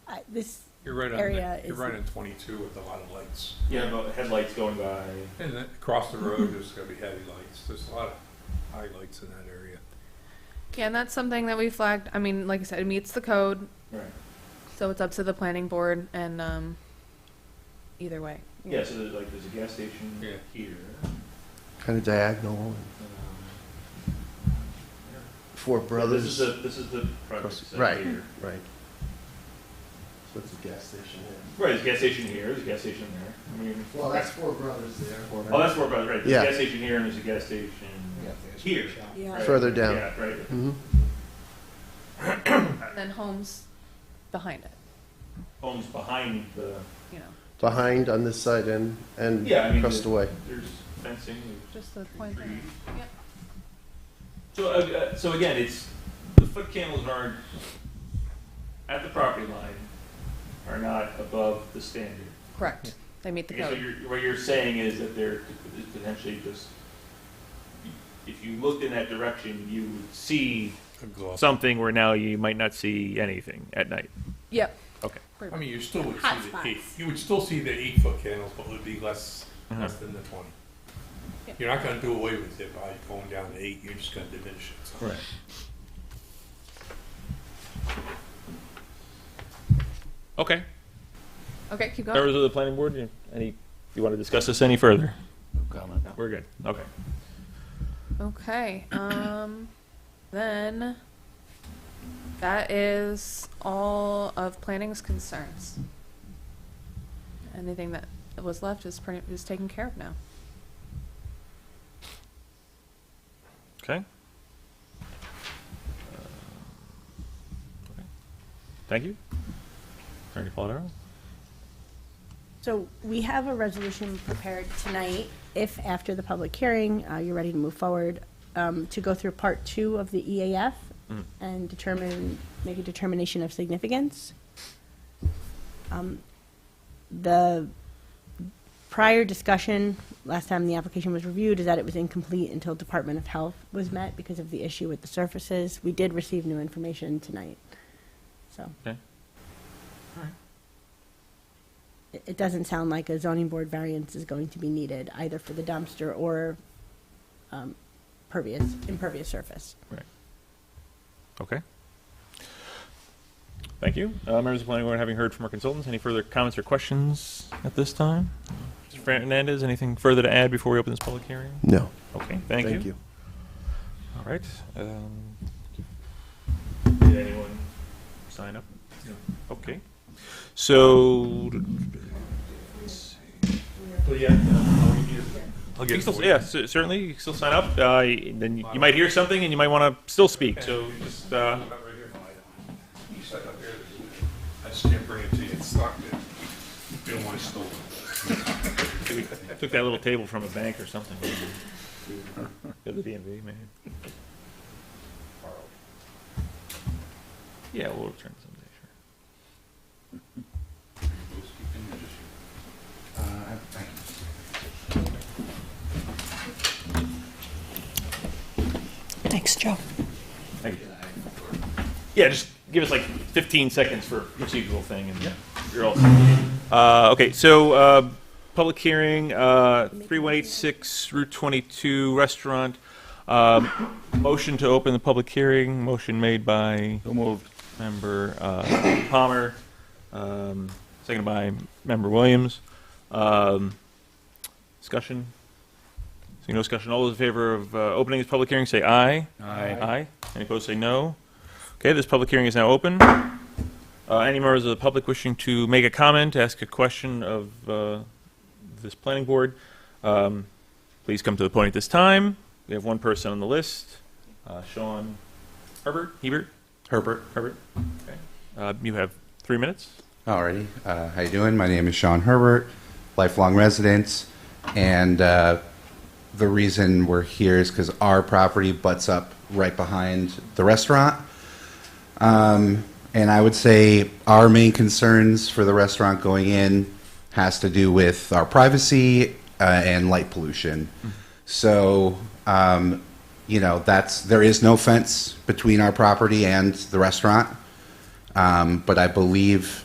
this You're right on, area the- you're is- right on twenty-two with a lot of lights. Yeah, about headlights going by. And then across the road, there's gonna be heavy lights. There's a lot of high lights in that area. Yeah, and that's something that we flagged. I mean, like I said, it meets the code, Right. so it's up to the planning board and, um, either way. Yeah, so there's like, there's a gas station Yeah. here. kind of diagonal. um, Four yeah, This is Brothers. the, this is the project Across- site right. here. Right. So it's a gas station there. Right, there's a gas station here, there's a gas station there. I mean. Four Brothers there. Oh, that's Four Brothers, right. There's Yeah. a gas station here and there's a gas station here. yeah Right. Further down. Yeah, right. hmm And then homes behind it, Homes behind the, you know, Behind on this side and, and Yeah, I mean, across the- the way. there's fencing, just the there's point. trees. Yep. So, uh, uh, so again, it's, the foot candles are at the property line, are not above the standard. Correct. They meet the Okay, so code. you're, what you're saying is that there is potentially just, if you looked in that direction, you would see something where now you might not see anything at night. Yep. Okay. I mean, you still would Hot see the spots. eight, you would still see the eight-foot candles, but it would be less, Uh-huh. less than the twenty. Yeah. You're not gonna do away with it by going down to eight, you're just gonna diminish it. so. Right. Okay, Okay, keep going. members of the planning board, you- any, you want to discuss this any further? comment. We're good, okay. Okay. Um, then that is all of planning's concerns. Anything that was left is pretty, is taken care of now. Okay. Uh, Thank you. Attorney Polidoro? so we have a resolution prepared tonight if after the public hearing uh, you're ready to move forward um, to go through part two of the EAF Mhm. and determine make a determination of significance um, the prior discussion last time the application was reviewed is that it was incomplete until Department of Health was met because of the issue with the surfaces we did receive new information tonight so it it doesn't sound like a zoning board variance is going to be needed either for the dumpster or um, pervious, impervious surface. Okay. Thank you. Uh, members of the planning board, having heard from our consultants, any further comments or questions at this time? Mr. Fernandez, anything further to add before we open this public hearing? No. Okay, thank you. Thank you. All right. um, Did anyone sign up? No. Okay. So, But yeah, no, we need to- uh, I'll get yeah, cer- certainly, you can still sign up. Uh, y- then you you might hear something and you might want to still speak, so just, uh, About right here, I- You sat up there, I just can't bring it to you, it's stuck there. Been one stolen. we took that little table from a bank or something. Go to the DMV, maybe. Yeah, we'll return someday, sure. Thanks, Joe. Thank you. Yeah, just give us like 15 seconds for procedural thing and you're all set. Uh, Okay, so, uh, public hearing, uh, 3186 Route 22 Restaurant. Um, Motion to open the public hearing, motion made by member uh, Palmer, um, seconded by member Williams. Um, Discussion? Seeing no discussion, all those in favor of uh, opening this public hearing, say aye. Aye. Any opposed, say no. Okay, this public hearing is now open. Uh, Any members of the public wishing to make a comment, ask a question of uh, this planning board, um, please come to the point at this time. We have one person on the list, uh, Sean Herbert, Hebert? Herbert. Herbert, okay. Uh, You have three minutes. Alrighty, uh, how you doing? My name is Sean Herbert, lifelong resident, and uh, the reason we're here is because our property butts up right behind the restaurant. Um, and I would say our main concerns for the restaurant going in has to do with our privacy uh, and light pollution. So, um, you know, that's there is no fence between our property and the restaurant. Um, but I believe